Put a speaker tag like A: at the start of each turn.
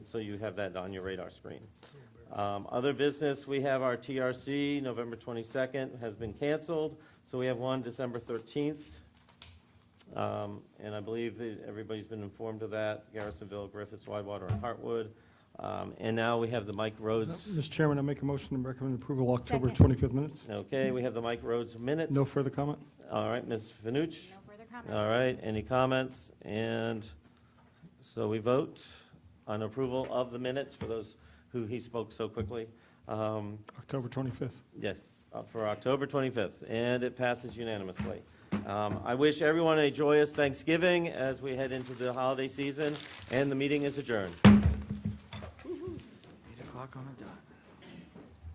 A: so you have that on your radar screen. Um, Other business, we have our TRC, November 22nd has been canceled, so we have one December 13th. Um, And I believe that everybody's been informed of that, Garrisonville, Griffiths, Whitewater, and Hartwood. Um, And now we have the Mike Rhodes,
B: Mr. Chairman, I make a motion to recommend approval October
C: Second.
B: 25th minutes.
A: okay, we have the Mike Rhodes minutes.
B: No further comment?
A: All right, Ms. Finucci?
C: No further comment.
A: All right, any comments? And so we vote on approval of the minutes for those who he spoke so quickly. Um,
B: October 25th.
A: Yes, uh, for October 25th, and it passes unanimously. Um, I wish everyone a joyous Thanksgiving as we head into the holiday season, and the meeting is adjourned.